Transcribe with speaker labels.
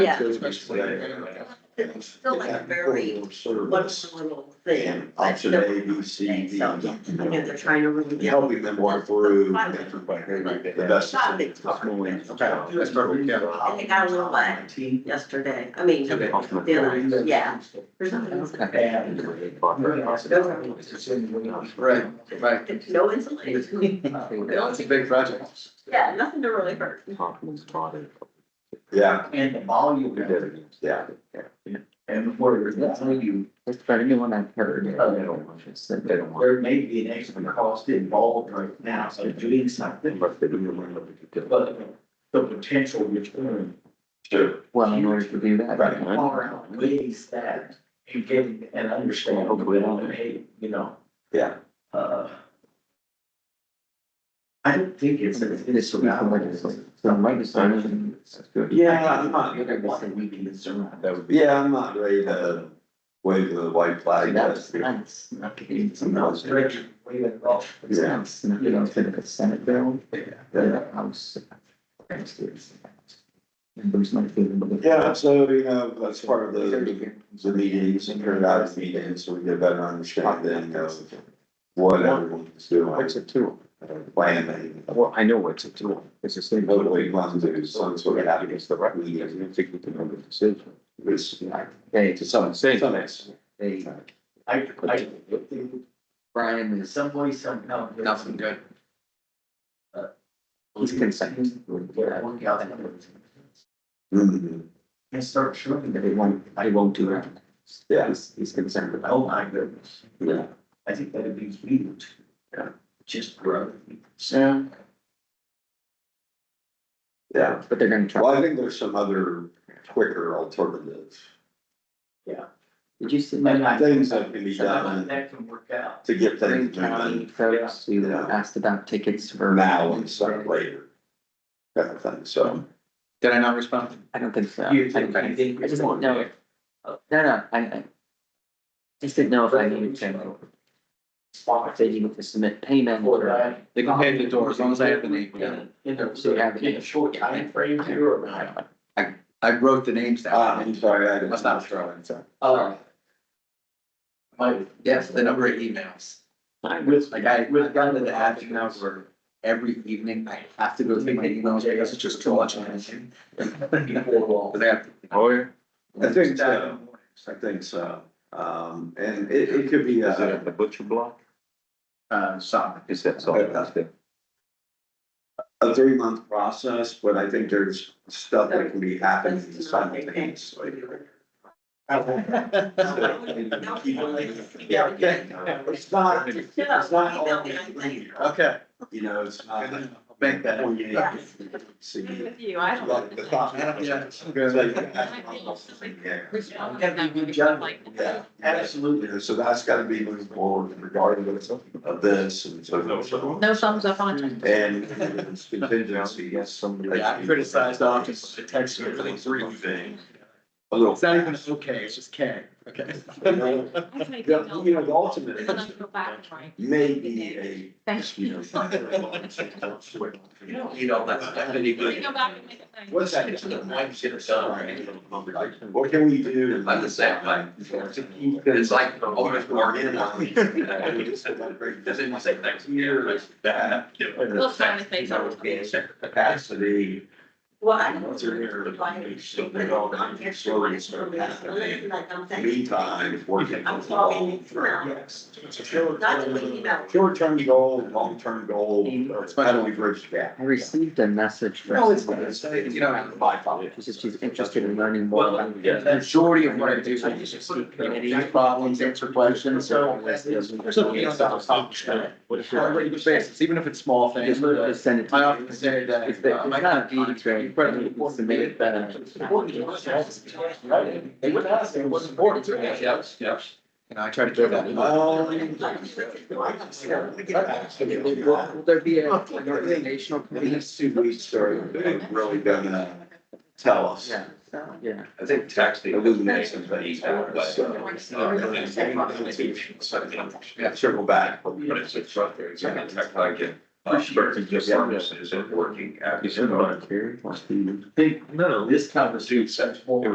Speaker 1: Yeah.
Speaker 2: Especially when
Speaker 1: It's still like a very
Speaker 2: Service.
Speaker 1: wonderful little thing.
Speaker 2: And option A, B, C, D.
Speaker 1: So, I mean, they're trying to really.
Speaker 2: Helping them walk through.
Speaker 1: Right.
Speaker 2: The best.
Speaker 1: Not a big talk.
Speaker 2: Okay.
Speaker 3: That's perfect, yeah.
Speaker 1: I think I will, but yesterday, I mean,
Speaker 3: Okay.
Speaker 1: the, yeah, there's nothing else.
Speaker 3: Right, right.
Speaker 1: No insulation.
Speaker 3: Yeah, it's a big project.
Speaker 1: Yeah, nothing to really hurt.
Speaker 2: Yeah,
Speaker 4: And the volume. of it.
Speaker 2: yeah.
Speaker 4: And before there's that, so you,
Speaker 5: It's probably the one I've heard.
Speaker 4: They don't there may be an extra cost involved right now, so doing something, but the potential return
Speaker 2: Sure.
Speaker 5: Well, in order to do that.
Speaker 2: Right.
Speaker 4: far outweighs that and getting an understanding of, hey, you know,
Speaker 2: Yeah.
Speaker 4: uh. I don't think it's. a-
Speaker 5: This will be from legislation. From legislation. That's good.
Speaker 2: Yeah, I'm not,
Speaker 4: You're gonna want a weekend to surround.
Speaker 5: That would be.
Speaker 2: yeah, I'm not ready to wave the white flag.
Speaker 5: That's nice. Okay.
Speaker 4: It's not stretch, we went off.
Speaker 5: It's nice. You know, it's been a Senate bill.
Speaker 2: Yeah.
Speaker 5: The House. That's good. There's my feeling. but the-
Speaker 2: Yeah, so, you know, that's part of the, the meetings, and periodic meetings, so we get a better understanding of what everyone's doing,
Speaker 5: What's a tool?
Speaker 2: planning,
Speaker 5: Well, I know what's a tool. It's a state.
Speaker 2: hopefully plans to do some sort of happiness,
Speaker 5: It's the right. We don't think we can make a decision.
Speaker 2: which,
Speaker 5: Hey,
Speaker 2: to some,
Speaker 5: Say.
Speaker 2: some extent.
Speaker 5: Hey,
Speaker 4: I, I,
Speaker 5: Brian
Speaker 4: in
Speaker 5: is,
Speaker 4: some way, somehow.
Speaker 3: Nothing good.
Speaker 5: he's consent.
Speaker 4: Yeah, work out that way.
Speaker 2: Mhm.
Speaker 4: And start showing
Speaker 5: That
Speaker 4: that,
Speaker 5: he won't, I won't do that.
Speaker 2: Yeah.
Speaker 5: He's, he's concerned about.
Speaker 4: oh my goodness,
Speaker 2: Yeah.
Speaker 4: I think that'd be huge.
Speaker 2: Yeah.
Speaker 4: Just grow.
Speaker 5: Yeah.
Speaker 2: Yeah.
Speaker 5: But they're gonna
Speaker 2: Well,
Speaker 5: try.
Speaker 2: I think there's some other quicker alternatives,
Speaker 5: Did you see
Speaker 4: And
Speaker 5: my
Speaker 4: I-
Speaker 2: things that can be
Speaker 4: Somehow
Speaker 2: done
Speaker 4: that can work out.
Speaker 2: to get
Speaker 5: Green
Speaker 2: things done
Speaker 5: County folks who asked about tickets for?
Speaker 2: now instead of later. Kind of thing, so. um,
Speaker 3: Did I not respond?
Speaker 5: I don't think so.
Speaker 4: You
Speaker 5: I don't
Speaker 4: think,
Speaker 5: think-
Speaker 4: you think.
Speaker 5: I just don't know. if- No, no, I, I. Just didn't know if I needed to. If they needed to submit payment
Speaker 4: For
Speaker 5: or.
Speaker 4: that.
Speaker 3: They can pay the door as long as I have the name. yeah.
Speaker 4: In a,
Speaker 5: So you have it.
Speaker 4: in a short timeframe here or not.
Speaker 3: I wrote the names
Speaker 2: Ah,
Speaker 3: down.
Speaker 2: I'm sorry, I didn't.
Speaker 3: Must not throw it.
Speaker 4: Uh, My.
Speaker 3: Yes, the number of emails.
Speaker 4: With,
Speaker 3: Like I,
Speaker 4: with
Speaker 3: with
Speaker 4: kind
Speaker 3: gone
Speaker 4: of
Speaker 3: to the app now where every evening I have to go through my emails because it's just too much. attention.
Speaker 4: Before
Speaker 3: But
Speaker 4: all.
Speaker 3: they have-
Speaker 5: Oh, yeah.
Speaker 2: I think so, I think so, um, and it, it could be, uh,
Speaker 5: the butcher block?
Speaker 3: Uh, so.
Speaker 5: Is that
Speaker 2: all it is? a three month process, but I think there's stuff that can be happening
Speaker 1: That's not a big thing.
Speaker 2: simultaneously.
Speaker 1: Yeah,
Speaker 2: Yeah, it's not, it's not all linear,
Speaker 3: Okay.
Speaker 2: you know, it's not.
Speaker 3: I'll make that.
Speaker 2: Well, yeah,
Speaker 1: Yes.
Speaker 2: see,
Speaker 6: Good with you, I
Speaker 2: like
Speaker 6: don't.
Speaker 2: the thought.
Speaker 3: Yeah.
Speaker 2: Yeah, Yeah.
Speaker 4: Absolutely.
Speaker 2: so that's gotta be moving forward regardless of this and so. forth.
Speaker 6: No thumbs up on it.
Speaker 2: And it's contingency, yes, somebody.
Speaker 3: Yeah, I criticized office the text for the three.
Speaker 2: Everything. A little.
Speaker 3: It's not even okay, it's just K, okay?
Speaker 2: You know,
Speaker 6: I think
Speaker 2: You know, you know, the ultimate
Speaker 6: I'm gonna
Speaker 2: is
Speaker 6: go back and try.
Speaker 2: maybe a.
Speaker 6: Thank
Speaker 2: you
Speaker 6: you.
Speaker 2: know, You know,
Speaker 4: need all that stuff
Speaker 6: We can Go back and make it nice.
Speaker 2: What's that?
Speaker 4: Mike should have done, right?
Speaker 2: What can we do?
Speaker 4: I'm the same way.
Speaker 2: To keep
Speaker 4: It's
Speaker 2: this.
Speaker 4: like, oh, it's working.
Speaker 2: Doesn't
Speaker 4: say thanks here, it's
Speaker 2: that.
Speaker 6: We'll try to say something.
Speaker 2: Capacity.
Speaker 1: Well, I don't know if you're like, stupid, I'm here, so I'm so messed up, like, I'm saying.
Speaker 2: Meantime, working.
Speaker 1: I'm talking now. Not to leave, you know.
Speaker 2: Short term goal, long term goal, how do we bridge the gap?
Speaker 5: I received a message from.
Speaker 3: You know,
Speaker 5: She says she's interested in learning more.
Speaker 4: Well,
Speaker 5: about-
Speaker 4: yeah,
Speaker 3: the majority of what I do is just see community problems, answer questions.
Speaker 4: So,
Speaker 5: What if
Speaker 3: On a
Speaker 5: you're-
Speaker 3: regular basis, even if it's small things.
Speaker 5: Just, just send it to
Speaker 3: I
Speaker 5: me.
Speaker 3: often say that.
Speaker 5: It's the-
Speaker 3: uh,
Speaker 5: it's
Speaker 3: my
Speaker 5: not
Speaker 3: God,
Speaker 5: a deed, right?
Speaker 3: incredibly
Speaker 5: It's
Speaker 3: important.
Speaker 5: made it better.
Speaker 3: It's important to us. They would ask, it was important to us, yes, yes. You know, I try to keep that. in mind.
Speaker 5: Will will there be a- an organizational committee?
Speaker 2: These two weeks are really uh, gonna tell us.
Speaker 5: Yeah, yeah.
Speaker 4: I think texting.
Speaker 2: Illuminations, but he's out, but- Circle back.
Speaker 4: But it's a truck, it's a tech, I get.
Speaker 3: Berkeley just services and working at.
Speaker 5: Is it volunteer?
Speaker 4: think, no, this conversation.